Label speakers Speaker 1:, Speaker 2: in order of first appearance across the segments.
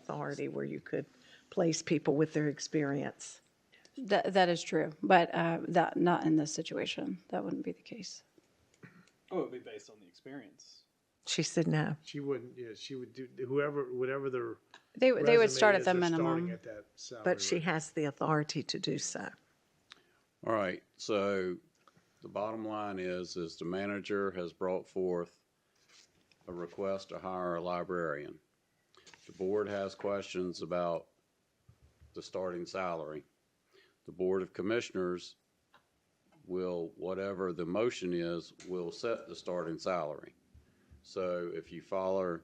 Speaker 1: authority where you could place people with their experience.
Speaker 2: That, that is true, but uh, that, not in this situation. That wouldn't be the case.
Speaker 3: Oh, it would be based on the experience.
Speaker 1: She said no.
Speaker 4: She wouldn't, yeah, she would do, whoever, whatever their.
Speaker 2: They, they would start
Speaker 4: resume
Speaker 2: at the
Speaker 4: is, they're starting
Speaker 2: minimum.
Speaker 4: at that salary
Speaker 1: But she
Speaker 4: rate.
Speaker 1: has the authority to do so.
Speaker 5: All right, so the bottom line is, is the manager has brought forth a request to hire a librarian. The board has questions about the starting salary. The Board of Commissioners will, whatever the motion is, will set the starting salary. So if you follow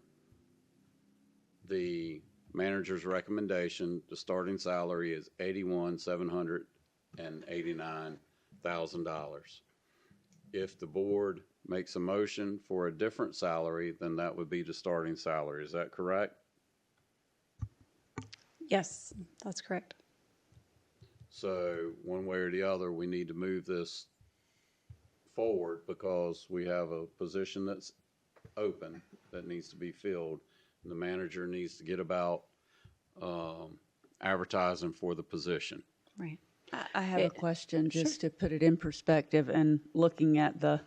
Speaker 5: the manager's recommendation, the starting salary is eighty-one, seven hundred and eighty-nine thousand dollars. If the board makes a motion for a different salary, then that would be the starting salary. Is that correct?
Speaker 2: Yes, that's correct.
Speaker 5: So one way or the other, we need to move this forward because we have a position that's open that needs to be filled. And the manager needs to get about, um, advertising for the position.
Speaker 2: Right.
Speaker 6: I- I have a
Speaker 2: It-
Speaker 6: question, just to put it in perspective and looking at the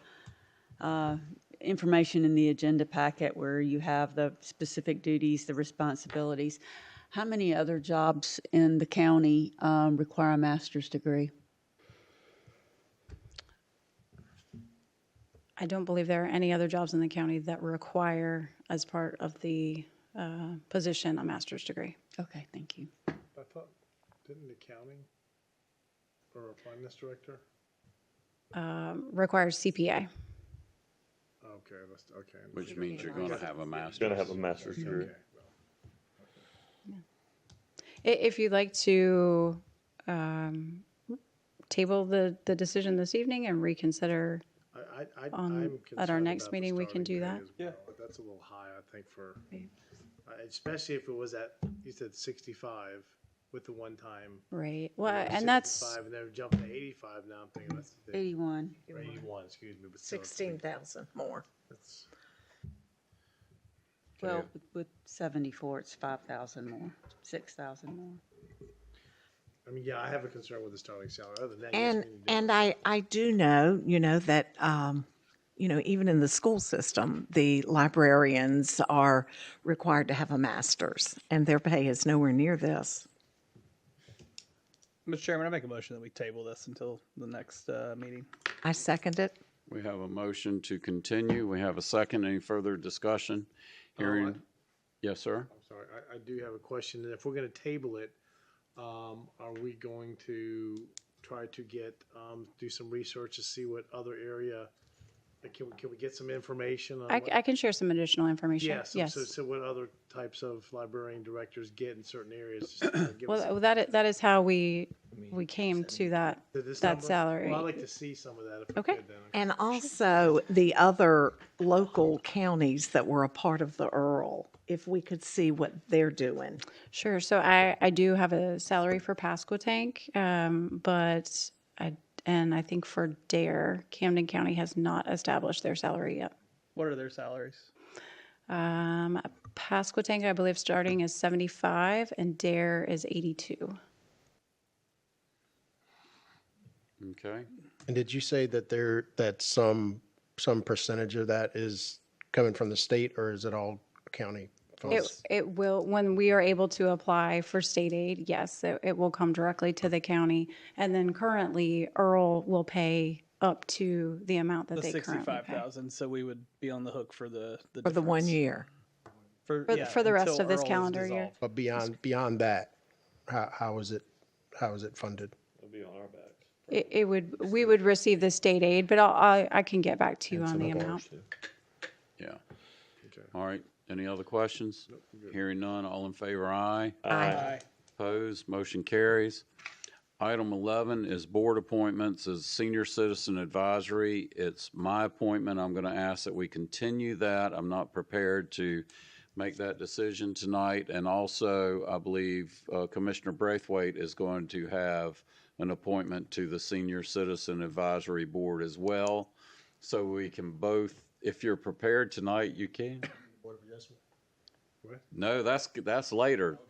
Speaker 6: uh, information in the agenda packet where you have the specific duties, the responsibilities. How many other jobs in the county um, require a master's degree?
Speaker 2: I don't believe there are any other jobs in the county that require, as part of the uh, position, a master's degree.
Speaker 6: Okay, thank you.
Speaker 4: I thought, didn't the accounting or our finance director?
Speaker 2: Um, Requires CPA.
Speaker 4: Okay, that's, okay. I
Speaker 5: Which
Speaker 4: understand.
Speaker 5: means you're gonna have a master's.
Speaker 7: Gonna have a master's degree.
Speaker 4: Okay, well,
Speaker 2: I- If you'd like to um, table the, the decision this evening and reconsider,
Speaker 4: I, I, I,
Speaker 2: On-
Speaker 4: I'm concerned
Speaker 2: at our next
Speaker 4: about the
Speaker 2: meeting, we can
Speaker 4: starting
Speaker 2: do
Speaker 4: pay
Speaker 2: that?
Speaker 4: as
Speaker 3: Yeah.
Speaker 4: well, but That's a little high, I think, for, uh, especially if it was at, you said sixty-five with the one time.
Speaker 2: right, well,
Speaker 4: It was
Speaker 2: Uh, and that's,
Speaker 4: 65, And then jumped to eighty-five now, I'm thinking that's, the-
Speaker 6: 81.
Speaker 4: or eighty-one, excuse me, but still. it's like-
Speaker 1: Sixteen thousand more.
Speaker 4: it's-
Speaker 6: Well, with- with 74, it's 5,000 more, 6,000 more.
Speaker 4: I mean, yeah, I have a concern with the starting salary, other than that. yes,
Speaker 1: And
Speaker 4: we need to do
Speaker 1: and I I do know you know that um, you know even in the school system the librarians are required to have a master's and their pay is nowhere near this.
Speaker 3: Mr. Chairman, I make a motion that we table this until the next uh, meeting.
Speaker 1: I second it.
Speaker 5: We have a motion to continue. We have a second. Any further discussion? Hearing, yes, sir?
Speaker 4: Sorry, I, I do have a question, and if we're gonna table it, um, are we going to try to get, um, do some research to see what other area, like, can, we can we get some information on?
Speaker 2: I,
Speaker 4: what-
Speaker 2: I can share some additional information,
Speaker 4: Yeah, so-
Speaker 2: yes.
Speaker 4: So, so what other types of librarian directors get in certain areas? just to give us
Speaker 2: Well, that, i- that is how we, we came to that,
Speaker 4: this
Speaker 2: that
Speaker 4: number?
Speaker 2: salary.
Speaker 4: Well, I'd like to see some of that if we
Speaker 2: Okay.
Speaker 4: could then.
Speaker 1: And also the other local counties that were a part of the Earl, if we could see what they're doing.
Speaker 2: Sure, so I, I do have a salary for Pasquotank, um, but I, and I think for Dare, Camden County has not established their salary yet.
Speaker 3: What are their salaries?
Speaker 2: Um, Pasquotank, I believe, starting is seventy-five, and Dare is eighty-two.
Speaker 5: Okay.
Speaker 8: And did you say that there, that some, some percentage of that is coming from the state or is it all county funds?
Speaker 2: It, it will, when we are able to apply for state aid, yes, it, it will come directly to the county. And then currently, Earl will pay up to the amount that
Speaker 3: The
Speaker 2: they currently
Speaker 3: sixty-five
Speaker 2: pay.
Speaker 3: thousand. So we would be on the hook for the the
Speaker 1: For the one
Speaker 3: difference.
Speaker 1: year.
Speaker 3: for
Speaker 2: For- for the rest
Speaker 3: until
Speaker 2: of this
Speaker 3: Earl is
Speaker 2: calendar year.
Speaker 3: dissolved.
Speaker 8: But beyond, beyond that, how, how is it, how is it funded?
Speaker 7: It'll be on our backs.
Speaker 2: It, it would, we would receive the state aid, but I'll, I, I can get back to you on the amount.
Speaker 5: Yeah. All right. Any other questions? Hearing none. All in favor, aye.
Speaker 7: Aye.
Speaker 5: Opposed, motion carries. Item 11 is board appointments as senior citizen advisory. It's my appointment. I'm going to ask that we continue that. I'm not prepared to make that decision tonight. And also, I believe uh, Commissioner Braithwaite is going to have an appointment to the senior citizen advisory board as well. So we can both, if you're prepared tonight, you can. No, that's, that's later.